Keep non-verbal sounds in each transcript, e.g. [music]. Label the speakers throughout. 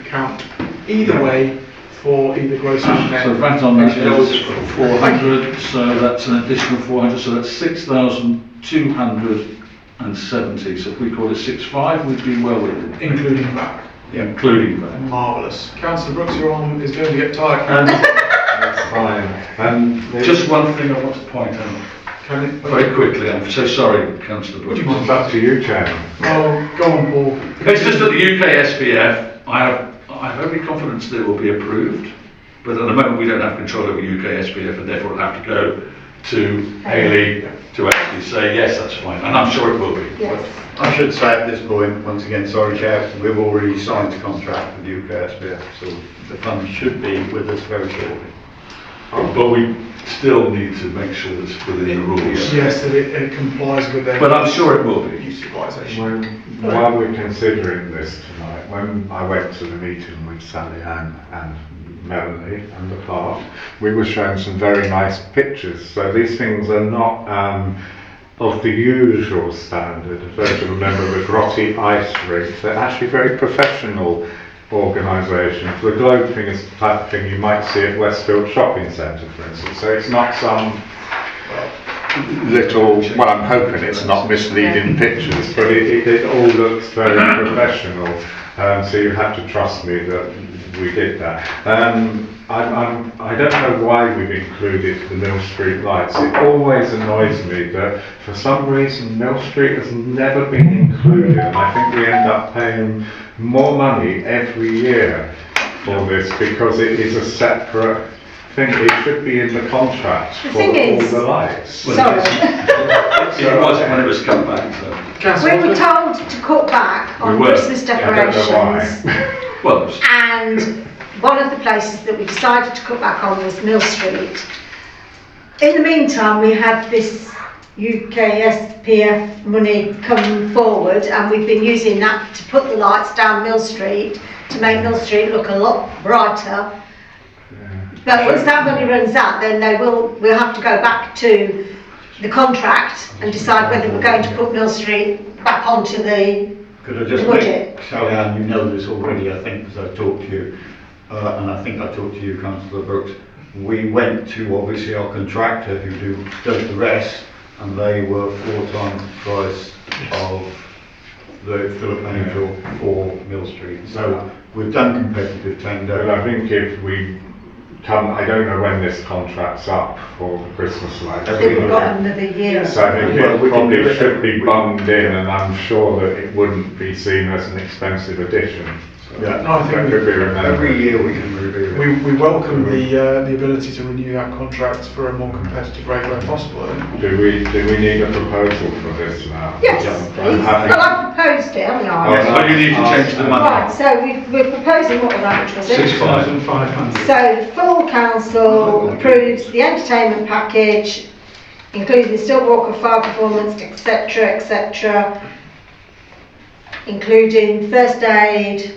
Speaker 1: account either way for either gross and
Speaker 2: So
Speaker 1: net.
Speaker 2: VAT on that is four hundred, so that's an additional four hundred, so that's six thousand two hundred and seventy. So if we call it six five, we'd be well within, it,
Speaker 1: Including that.
Speaker 2: including that.
Speaker 1: Marvellous. Councillor Brooks, your arm is going to get tight.
Speaker 2: And
Speaker 3: That's fine. Um, there-
Speaker 2: just one thing I want to point out,
Speaker 1: Can it?
Speaker 2: very quickly, I'm so sorry, councillor Brooks.
Speaker 3: It's up to you, Chairman.
Speaker 1: Oh, go on, Paul.
Speaker 2: It's just that the UK SPF, I have, I have every confidence that it will be approved, but at the moment, we don't have control over UK SPF, and therefore it'll have to go to Haley to actually say, yes, that's fine, and I'm sure it will be.
Speaker 4: Yes,
Speaker 5: I should say at this point, once again, sorry Chair, we've already signed the contract with UKSBF, so the funds should be with us very shortly.
Speaker 2: But we still need to make sure it's within the rules.
Speaker 1: Yes, that it it complies with their.
Speaker 2: But I'm sure it will be.
Speaker 1: Utilisation.
Speaker 3: When, while we're considering this tonight, when I went to the meeting with Sally Ann and Melanie and the park, we were shown some very nice pictures. So these things are not um, of the usual standard. If I can remember the grotty ice rink, they're actually very professional organisations. The globe thing is the type of thing you might see at Westfield Shopping Centre, for instance. So it's not some little, well, I'm hoping it's not misleading pictures, but it, it, it all looks very professional. Um, so you have to trust me that we did that. Um, I, I'm, I don't know why we've included the Mill Street lights. It always annoys me that for some reason Mill Street has never been included. And I think we end up paying more money every year for this because it is a separate thing. It should be in the contract
Speaker 4: The
Speaker 3: for
Speaker 4: thing
Speaker 3: all
Speaker 4: is-
Speaker 3: the lights.
Speaker 4: sorry.
Speaker 2: It was when it was come back, so,
Speaker 1: Councillor.
Speaker 4: We were
Speaker 1: Watford?
Speaker 4: told to cut back
Speaker 2: We
Speaker 4: on
Speaker 2: were.
Speaker 4: Christmas
Speaker 3: I don't know
Speaker 4: decorations.
Speaker 3: why. [laughs]
Speaker 2: well, it was-
Speaker 4: And one of the places that we decided to cut back on was Mill Street. In the meantime, we had this UK SPF money come forward and we've been using that to put the lights down Mill Street, to make Mill Street look a lot brighter. But once that money runs out, then they will, we'll have to go back to the contract and decide whether we're going to put Mill Street back onto the,
Speaker 5: Could I just
Speaker 4: Would
Speaker 5: make,
Speaker 4: it?
Speaker 5: Sally Ann, you know this already, I think, because I talked to you, uh, and I think I talked to you, councillor Brooks. We went to obviously our contractor who do, does the rest, and they were four times the price of the Philip Angel for Mill Street. So we've done competitive
Speaker 3: Well,
Speaker 5: tender.
Speaker 3: I think if we come, I don't know when this contract's up for the Christmas lights.
Speaker 4: that we've got another year.
Speaker 3: So I think
Speaker 5: Well, we
Speaker 3: it
Speaker 5: can
Speaker 3: probably
Speaker 5: do it.
Speaker 3: should be bunged in and I'm sure that it wouldn't be seen as an expensive addition. So
Speaker 5: Yeah,
Speaker 1: No, I
Speaker 3: That could
Speaker 1: think
Speaker 3: be
Speaker 5: every
Speaker 3: remembered.
Speaker 5: year we can review it.
Speaker 1: we, we welcome the, uh, the ability to renew that contract for a more competitive rate where possible.
Speaker 3: Do we, do we need a proposal for this now?
Speaker 4: Yes,
Speaker 3: Yeah.
Speaker 4: please.
Speaker 3: I think-
Speaker 4: Well, I proposed it, haven't I?
Speaker 2: Yes, but you need to change the money.
Speaker 4: Right, so we, we're proposing, what was that, which was
Speaker 2: Six
Speaker 4: it?
Speaker 2: five.
Speaker 4: So the full council approves the entertainment package, including the Stillwater Fire Performance, etc., etc., including first aid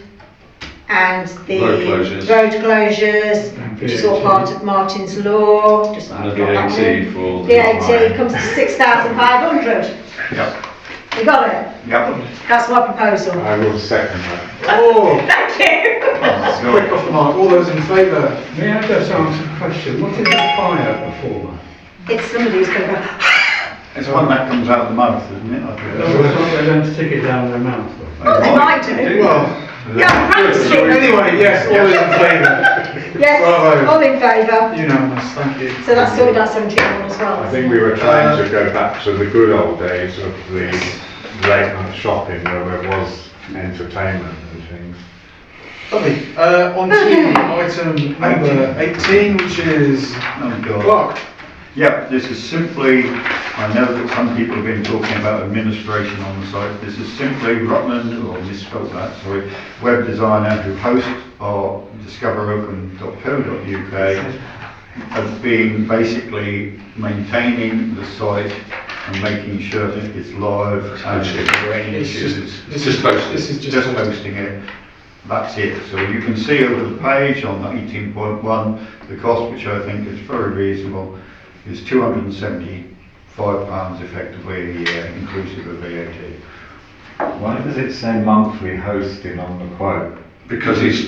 Speaker 4: and the
Speaker 2: Road closures.
Speaker 4: road closures, which is all part of Martin's Law, just
Speaker 2: and the
Speaker 4: I've got that
Speaker 2: VAT
Speaker 4: one.
Speaker 2: for.
Speaker 4: VAT comes to six thousand five hundred.
Speaker 5: Yep.
Speaker 4: You got it?
Speaker 5: Yep.
Speaker 4: That's my proposal.
Speaker 3: I will second that.
Speaker 1: Oh,
Speaker 4: [laughs] Thank you.
Speaker 1: quick off the mark. All those in favour?
Speaker 6: May I just ask a question? What is a fire performer?
Speaker 4: It's somebody who's gonna go,
Speaker 5: It's one that comes out of the mouth, isn't it? I think.
Speaker 6: No, it's not they're going to stick it down their mouth.
Speaker 4: oh, they might do.
Speaker 1: Well,
Speaker 4: Yeah, Frank Street.
Speaker 1: anyway, yes, all those in favour?
Speaker 4: Yes,
Speaker 1: Bravo.
Speaker 4: all in favour.
Speaker 1: Unanimous, thank you.
Speaker 4: So that's sorted out seventeen one as well.
Speaker 3: I think we were trying to go back to the good old days of the late night shopping where there was entertainment and things.
Speaker 1: Lovely. Uh, on to item number 18, which is
Speaker 5: Oh, God.
Speaker 1: Clark.
Speaker 5: Yep, this is simply, I know that some people have been talking about administration on the site, this is simply Rutland, or misspelled that, sorry, web designer who hosts our discoveropen.co.uk has been basically maintaining the site and making sure that it's live and if there are any
Speaker 1: It's
Speaker 5: issues.
Speaker 1: just,
Speaker 2: It's
Speaker 1: this
Speaker 2: just
Speaker 1: is,
Speaker 2: posted.
Speaker 1: this is
Speaker 5: Just
Speaker 1: just.
Speaker 5: posting it, that's it. So you can see over the page on the eighteen point one, the cost, which I think is very reasonable, is two hundred and seventy-five pounds effectively a year, inclusive of VAT.
Speaker 3: Why does it say monthly hosting on the quote?
Speaker 2: Because he's